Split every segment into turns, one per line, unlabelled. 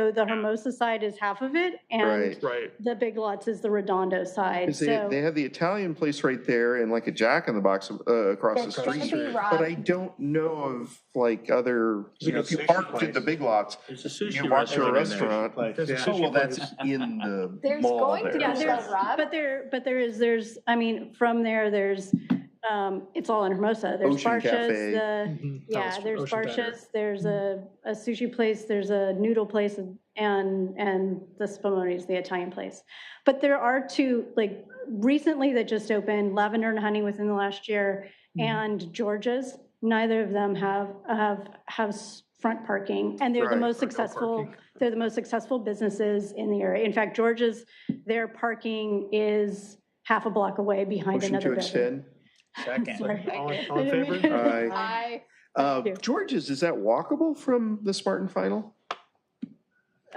So the Hermosa side is half of it, and
Right.
Right.
the Big Lots is the Redondo side,
'Cause they,
so.
they have the Italian place right there and like a Jack in the Box uh, across the
That's gonna
street.
be Rob.
But I don't know of like other, you know, if you
Sushi
parked at
place.
the big lots,
There's a sushi
you walk to a restaurant.
There's a
Oh, well,
sushi
that's
place.
in the
There's
mall
going to be
Yeah,
there.
a
there's-
Rob.
But there, but there is, there's, I mean, from there, there's, um, it's all in Hermosa. There's
Ocean Cafe.
Barchas, the,
Mhm.
yeah,
Alice-
there's
Ocean Diner.
Barchas, there's a,
Mm-hmm.
a sushi place, there's a noodle place, and, and the Spumoni's, the Italian place. But there are two, like, recently that just opened, Lavender and Honey within the last year,
Mm-hmm.
Mhm.
and George's. Neither of them have, have, have s- front parking, and they're the
Right,
most
or no
successful
parking.
they're the most successful businesses in the area. In fact, George's, their parking is half a block away behind
Motion to
another building.
extend.
Sorry.
All in- all
I
in
didn't mean
favor?
to-
Aye.
I,
Uh,
you.
George's, is that walkable from the Spartan Final?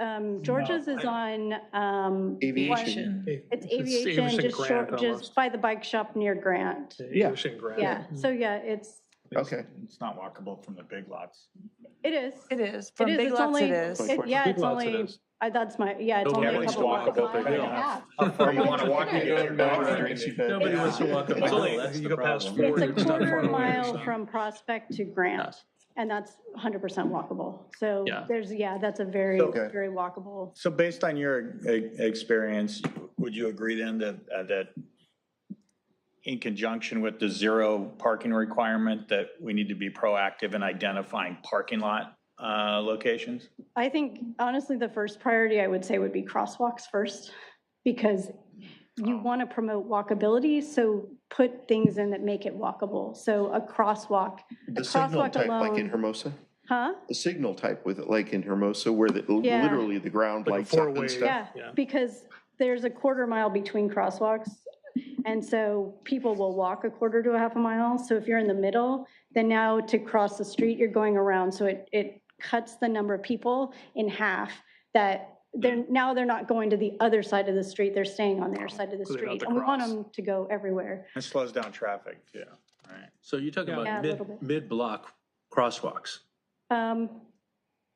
Um, George's is on, um.
Aviation.
one-
Hey,
It's
it was
aviation,
in
just short,
Grant
just
almost.
by the bike shop near Grant.
It was in Grant.
Yeah, so yeah, it's,
Okay.
It's not walkable from the big lots.
it is.
It is. From
is,
Big
it's
Lots,
only-
it is.
Like-
It-
what-
Yeah,
Big
it's
Lots it
only,
is.
I, that's my, yeah, it's
Nobody
only a
wants to
couple
walk
blocks.
up that
away.
hill.
Yeah.
You wanna walk
it,
you go to Dollar Tree.
Nobody wants to walk up.
It's only-
you go past
It's
Ford and
It's a
stuff on the
quarter
way,
mile
so.
from Prospect to Grant, and that's 100% walkable. So
Yeah.
there's, yeah, that's a very,
Okay.
very walkable.
So based on your e- experience, would you agree then that, uh, that in conjunction with the zero parking requirement, that we need to be proactive in identifying parking lot uh, locations?
I think honestly, the first priority I would say would be crosswalks first, because you want to promote walkability, so put things in that make it walkable. So a crosswalk,
The signal
crosswalk
type, like in
alone.
Hermosa?
huh?
The signal type with, like in Hermosa, where the,
Yeah.
literally the ground
Like a
lights up
four-way-
and stuff?
Yeah, because there's a quarter mile between crosswalks. And so people will walk a quarter to a half a mile. So if you're in the middle, then now to cross the street, you're going around. So it, it cuts the number of people in half that they're, now they're not going to the other side of the street. They're staying on their side of the
So they don't have
street.
to
And we want
cross.
them to go everywhere.
It slows down traffic, yeah. All right.
So you're talking
Yeah, a
about
little bit.
mid, mid-block crosswalks.
Um,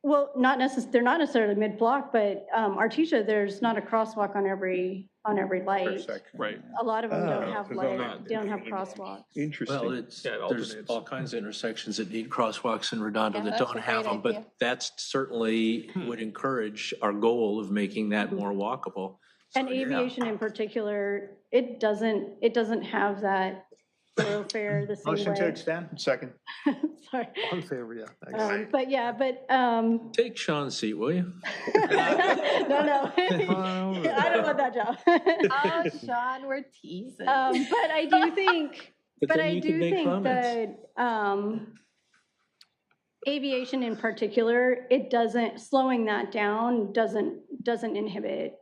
Well, not necess, they're not necessarily mid-block, but um, Artesia, there's not a crosswalk on every, on every light.
Right.
A lot of them don't
Oh,
have
they're
light,
not-
don't have crosswalks.
Well,
Interesting.
it's,
Yeah, it
there's
alternates.
all kinds of intersections that need crosswalks in Redondo
Yeah,
that
that's
don't
a great
have them,
idea.
but that's certainly
Hmm.
would encourage our goal of making that more walkable. So,
Hmm. And
yeah.
aviation in particular, it doesn't, it doesn't have that thoroughfare the same
Motion to
way.
extend?
Second.
Sorry.
On favor, yeah. thanks.
Um, But yeah, but, um,
Take Sean's seat, will you?
no, no. I don't want that job.
oh, Sean, we're teasing.
Um, But I do think, but
then
I
you can
do
make
think
comments.
that, um, aviation in particular, it doesn't, slowing that down doesn't, doesn't inhibit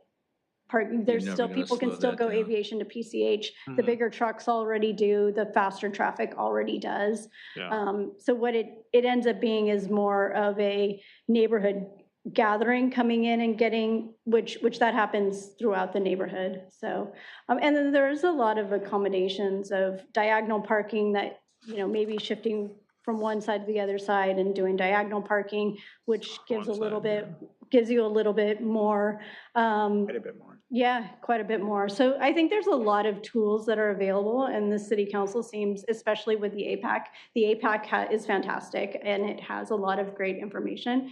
park, there's
never
still,
gonna
people can
slow
still
that
go
down. Mm-hmm.
aviation to PCH. The
Mhm.
bigger trucks already do, the faster traffic already does.
Yeah.
Um, So what it, it ends up being is more of a neighborhood gathering coming in and getting, which, which that happens throughout the neighborhood, so. um, And then there's a lot of accommodations of diagonal parking that, you know, maybe shifting from one side to the other side and doing diagonal parking, which gives a
One
little
side,
bit, gives you a little bit more, um,
Quite a bit more.
yeah, quite a bit more. So I think there's a lot of tools that are available, and the city council seems, especially with the APAC, the APAC ha- is fantastic, and it has a lot of great information.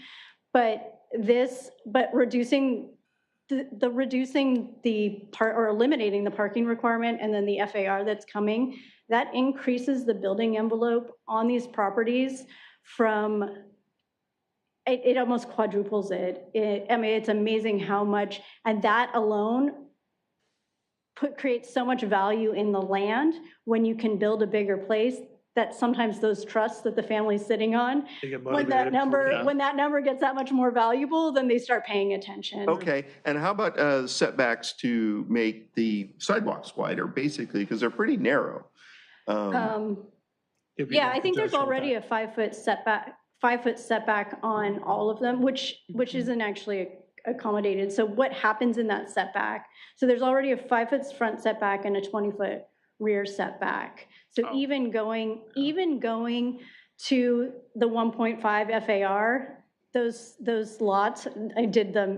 But this, but reducing, the the reducing the part, or eliminating the parking requirement, and then the FAR that's coming, that increases the building envelope on these properties from, it, it almost quadruples it. It, I mean, it's amazing how much, and that alone put, creates so much value in the land when you can build a bigger place that sometimes those trusts that the family's sitting on,
They get
when
motivated.
that number,
Yeah.
when that number gets that much more valuable, then they start paying attention.
Okay, and how about uh, setbacks to make the sidewalks wider, basically, because they're pretty narrow? Um,
Um,
It'd be
Yeah,
more
I think there's
congestion with
already a five-foot setback, five-foot setback on all of them, which, which
Mm-hmm.
isn't actually accommodated. So what happens in that setback? So there's already a five-foot front setback and a 20-foot rear setback. So
Oh.
even going, even going to the 1.5 FAR, those, those lots, I did them